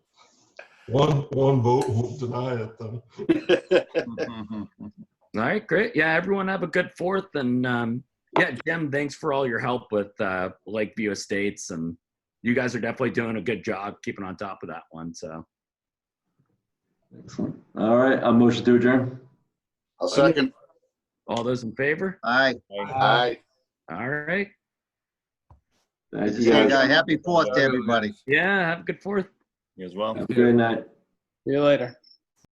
One, one vote won't deny it though. All right, great. Yeah, everyone have a good fourth. And um, yeah, Jim, thanks for all your help with uh, Lakeview Estates. And you guys are definitely doing a good job keeping on top of that one. So Excellent. All right, I'll motion to adjourn. I'll second. all those in favor? Aye. Aye. All right. Thank you Yeah, guys. guy. Happy Fourth to everybody. Yeah, have a good fourth. You as well. Have a good night. See you later.